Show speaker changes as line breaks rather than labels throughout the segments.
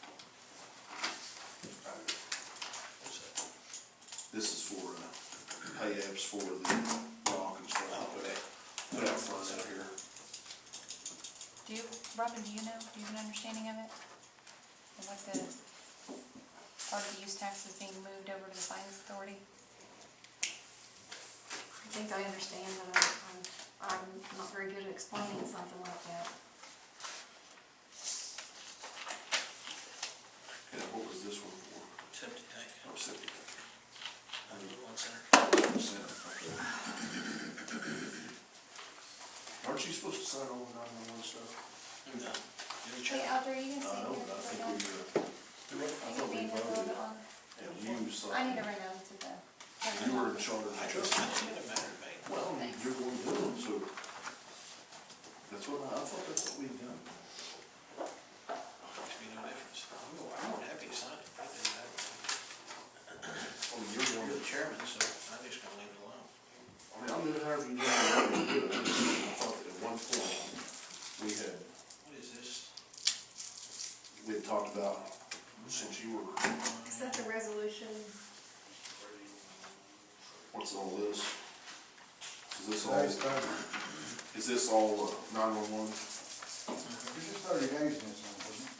uh, for the rock and stuff, but put out front out here.
Do you, Robin, do you know, do you have an understanding of it? And what the, part of the use tax is being moved over to the finance authority?
I think I understand, but I- Um, I'm, I'm not very good at explaining something like that.
And what was this one for?
Septic tank,
Oh, septic. Hundred
one center.
percent, okay. Aren't you supposed to sign all the nine-one-one stuff?
No.
Hey,
Any check?
Audrey,
I
are you gonna stay
know,
here?
but I
for a
think we,
minute?
uh, I
Are
thought we voted, and you
you being here a little bit long? I need
signed,
to run out to the.
you were in charge of
I
the
just,
truck.
it didn't matter to me.
Well,
Thanks.
you're going to do it, so that's what, I I thought that's what we done.
Makes me no difference. I'm go- I'm happy to sign it. It doesn't matter to me.
Oh, you're going
You're the chairman, so I'm just gonna leave it alone.
I mean, I'm gonna have you do it, I'm gonna do it. I thought at one point, we had,
What is this?
we had talked about, since you were,
Is that the resolution?
what's all this? Is this all, is this all uh, nine-one-one?
It's just thirty days in this one, isn't it?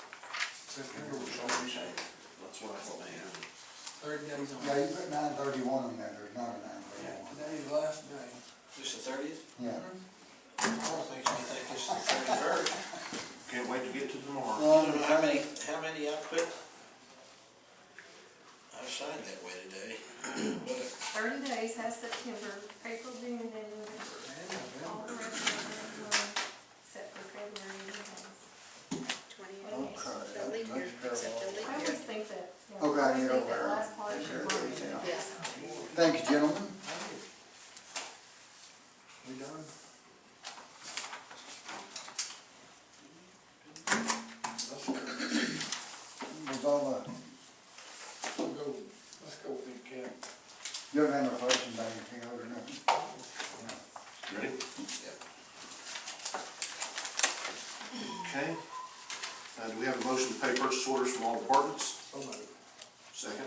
September was always. That's what I thought, man.
Thirty days on.
Yeah, you put nine thirty-one in there, there's not a nine thirty-one.
Today's the last day.
This the thirtieth?
Yeah.
Paul thinks me think this is the thirty-first.
Can't wait to get to tomorrow.
Well,
How many, how many I put? I signed that way today, but
Thirty days has September, April, June, and then November. All the rest of them are, except for February, and March.
Twenty, the leap year, except the
I
leap
always
year.
think that. yeah, I
Okay,
always
you're
think that
aware.
last part is
Sure,
March.
yeah.
Yes.
Thank you, gentlemen.
We done?
Was all, uh,
We'll go, let's go with the cap.
you don't have no questions on anything other than that?
Ready? Okay. Uh, do we have a motion to pay purchase orders from all departments?
So moved.
Second?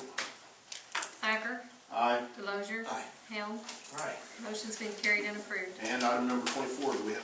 Thacker,
Aye.
Delozer.
Aye.
Helm,
Right.
motion's been carried and approved.
And item number twenty-four, do we have